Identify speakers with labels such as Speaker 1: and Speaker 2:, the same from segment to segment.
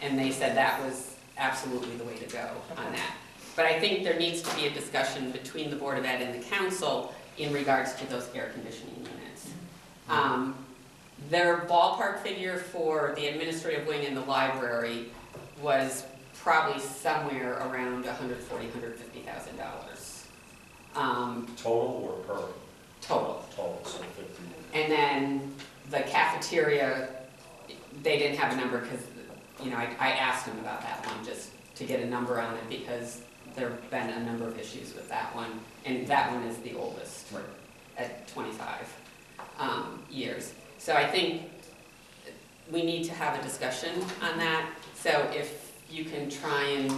Speaker 1: And they said that was absolutely the way to go on that. But I think there needs to be a discussion between the Board of Ed and the council in regards to those air conditioning units. Um, Their ballpark figure for the administrative wing and the library was probably somewhere around $140,000, $150,000 um,
Speaker 2: Total or per?
Speaker 1: total.
Speaker 2: Total, so fifty.
Speaker 1: And then the cafeteria, they didn't have a number because, you know, I, I asked them about that one just to get a number on it because there've been a number of issues with that one. And that one is the oldest
Speaker 2: Right.
Speaker 1: at twenty-five, um, years. So I think we need to have a discussion on that. So if you can try and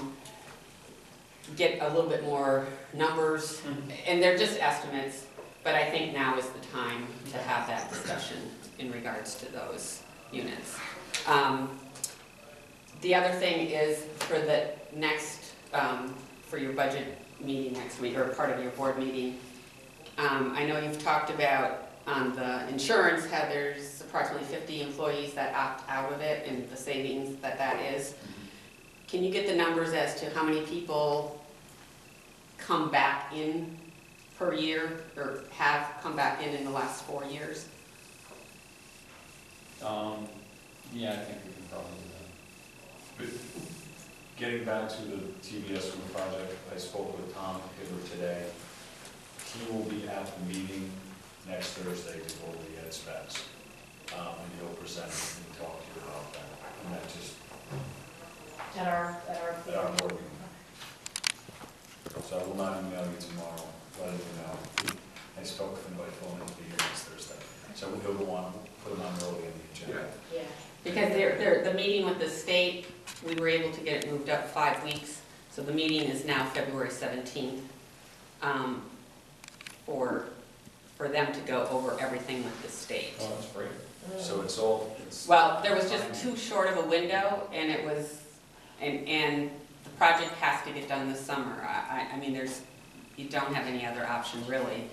Speaker 1: get a little bit more numbers, and they're just estimates, but I think now is the time to have that discussion in regards to those units. Um, The other thing is for the next, um, for your budget meeting next week, or part of your board meeting, um, I know you've talked about on the insurance, how there's approximately 50 employees that opt out of it and the savings that that is. Can you get the numbers as to how many people come back in per year or have come back in in the last four years?
Speaker 2: Um, yeah, I think we can probably do that. But Getting back to the TBS room project, I spoke with Tom Hibbert today. He will be at the meeting next Thursday to go over the ed specs. Um, and he'll present and talk to you about that, and that just,
Speaker 3: At our, at
Speaker 2: at
Speaker 3: our.
Speaker 2: our board meeting. So I will not email you tomorrow, let him know. I spoke with him by phone, he'll be here next Thursday. So we'll go on, put him on early in the agenda.
Speaker 3: Yeah.
Speaker 1: Because they're, they're, the meeting with the state, we were able to get it moved up five weeks, so the meeting is now February seventeenth. Um, for, for them to go over everything with the state.
Speaker 2: Oh, that's great. So it's all, it's.
Speaker 1: Well, there was just too short of a window, and it was, and, and the project has to get done this summer. I, I, I mean, there's, you don't have any other option really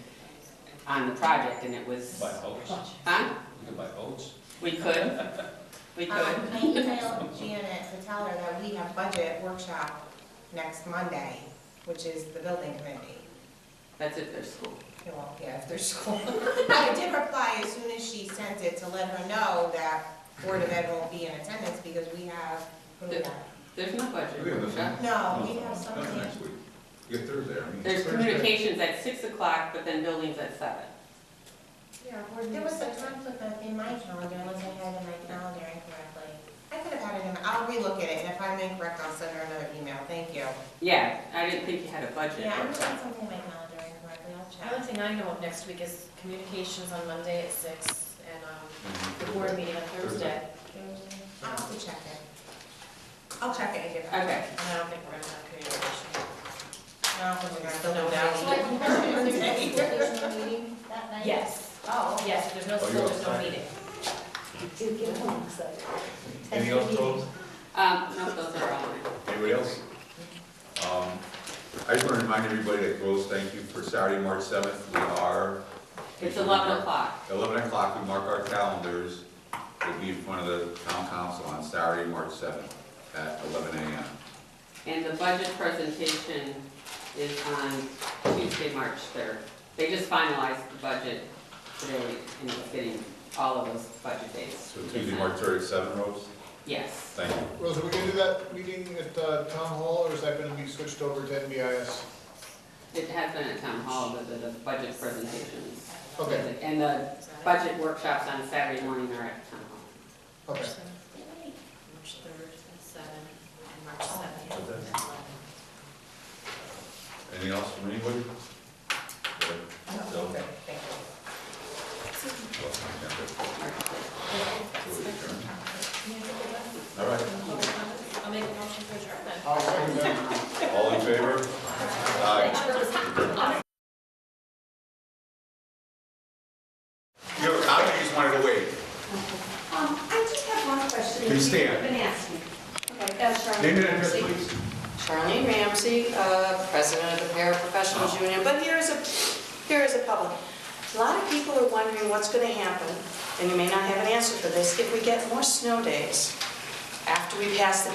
Speaker 1: on the project, and it was,
Speaker 2: Buy boats, you
Speaker 1: huh?
Speaker 2: can buy boats.
Speaker 1: We could, we could.
Speaker 4: Um, I emailed Janet to tell her that we have budget workshop next Monday, which is the building committee.
Speaker 1: That's if there's school.
Speaker 4: You know, yeah, if there's school. I did reply as soon as she sent it to let her know that Board of Ed won't be in attendance because we have, what do we have?
Speaker 1: There's no budget
Speaker 5: We have the-
Speaker 1: workshop.
Speaker 4: No, we have
Speaker 5: Not
Speaker 4: something.
Speaker 5: next week. You get Thursday, I mean.
Speaker 1: There's
Speaker 5: Thursday.
Speaker 1: communications at six o'clock, but then buildings at seven.
Speaker 3: Yeah, board
Speaker 4: There was a
Speaker 3: meeting.
Speaker 4: conflict in my calendar, unless I had it in my calendar incorrectly. I could have had it in, I'll relook at it, and if I'm incorrect, I'll send her another email, thank you.
Speaker 1: Yeah, I didn't think you had a budget
Speaker 4: Yeah, I'm
Speaker 1: workshop.
Speaker 4: looking something in my calendar incorrectly, I'll
Speaker 3: The only
Speaker 4: check.
Speaker 3: thing I know of next week is communications on Monday at six and, um, the board meeting on Thursday.
Speaker 4: I'll have to check it. I'll check it and get back.
Speaker 1: Okay.
Speaker 3: And I don't think we're gonna have communication.
Speaker 4: No, we're not, no doubt.
Speaker 6: So I can there's no school, there's no meeting that night?
Speaker 3: Yes,
Speaker 6: Oh, okay.
Speaker 3: yes, there's no
Speaker 5: Are you
Speaker 3: school, there's no
Speaker 5: outside?
Speaker 3: meeting.
Speaker 2: Any else, Joel?
Speaker 1: Um, no, those are all mine.
Speaker 5: Anybody else? Um, I just want to remind everybody that Groves, thank you for Saturday, March seventh, we are.
Speaker 1: It's eleven o'clock.
Speaker 5: Eleven o'clock, we mark our calendars, we'll be in front of the town council on Saturday, March seventh, at eleven AM.
Speaker 1: And the budget presentation is on Tuesday, March 3rd. They just finalized the budget today, and it's getting all of those budget dates.
Speaker 5: So Tuesday, March third at seven, Rose,
Speaker 1: Yes.
Speaker 5: thank you.
Speaker 7: Rose, are we gonna do that meeting at uh, Town Hall, or is that gonna be switched over to NBIS?
Speaker 1: It has been at town hall, but the, the budget presentations.
Speaker 7: Okay,
Speaker 1: And the budget workshops on Saturday morning are at town hall.
Speaker 7: okay.
Speaker 3: March third at seven and March
Speaker 6: Oh.
Speaker 3: seventh
Speaker 5: Okay.
Speaker 3: at eleven.
Speaker 5: Anything else from anybody? Good. So,
Speaker 4: Okay, thank you.
Speaker 5: well, I can't do
Speaker 1: March 3rd.
Speaker 5: it. So we adjourn. All right.
Speaker 3: I'll make a motion for adjournment.
Speaker 7: All right, then.
Speaker 5: All in favor? Aye. You have a comment, you just wanted to wait?
Speaker 6: Um, I just have one question.
Speaker 5: Please
Speaker 6: that you've
Speaker 5: stand.
Speaker 6: Been asking. Okay, uh, Charlotte.
Speaker 5: Name and address, please.
Speaker 8: Charlene Ramsey, uh, president of the
Speaker 4: Oh.
Speaker 8: Paraprofessionals Union, but here is a, here is a public. A lot of people are wondering what's going to happen, and you may not have an answer for this, if we get more snow days after we pass the